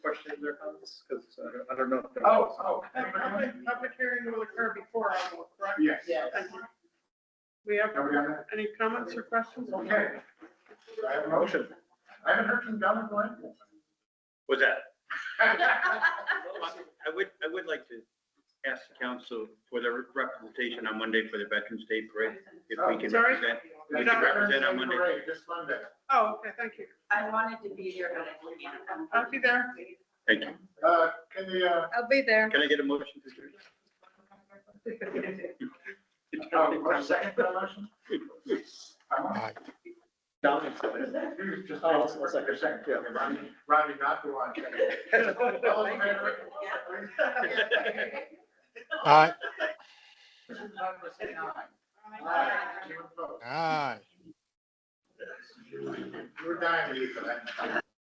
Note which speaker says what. Speaker 1: questions or comments? Because I don't know.
Speaker 2: Oh, oh.
Speaker 3: Have Public public hearing will occur before I will, correct?
Speaker 2: Yes.
Speaker 4: Yeah.
Speaker 3: Thank you. We have
Speaker 2: Have we done that?
Speaker 3: any comments or questions?
Speaker 2: Okay. Do I have a motion?
Speaker 1: Motion,
Speaker 2: I haven't heard from Donna Glenn.
Speaker 1: was that? I would, I would like to ask the council for their representation on Monday for the Veterans Day Parade, if we can
Speaker 3: Sorry?
Speaker 1: represent.
Speaker 2: That's
Speaker 1: We can represent on
Speaker 2: Veterans Day
Speaker 1: Monday.
Speaker 2: Parade This Monday.
Speaker 3: Oh, okay, thank you.
Speaker 4: I wanted to be there, but I can't.
Speaker 3: I'll be there.
Speaker 1: Thank you.
Speaker 2: Uh, can the, uh,
Speaker 3: I'll be there.
Speaker 1: Can I get a motion to adjourn?
Speaker 2: oh, one second for the motion? I'm on.
Speaker 1: Dominic
Speaker 2: Who's Just all of us, like a second, yeah, Rodney, Rodney, not the one. All in favor?
Speaker 5: Aye,
Speaker 2: Mrs. Douglas, say aye. Aye.
Speaker 4: Aye.
Speaker 2: Anyone opposed?
Speaker 5: aye.
Speaker 2: We're dying to you for that.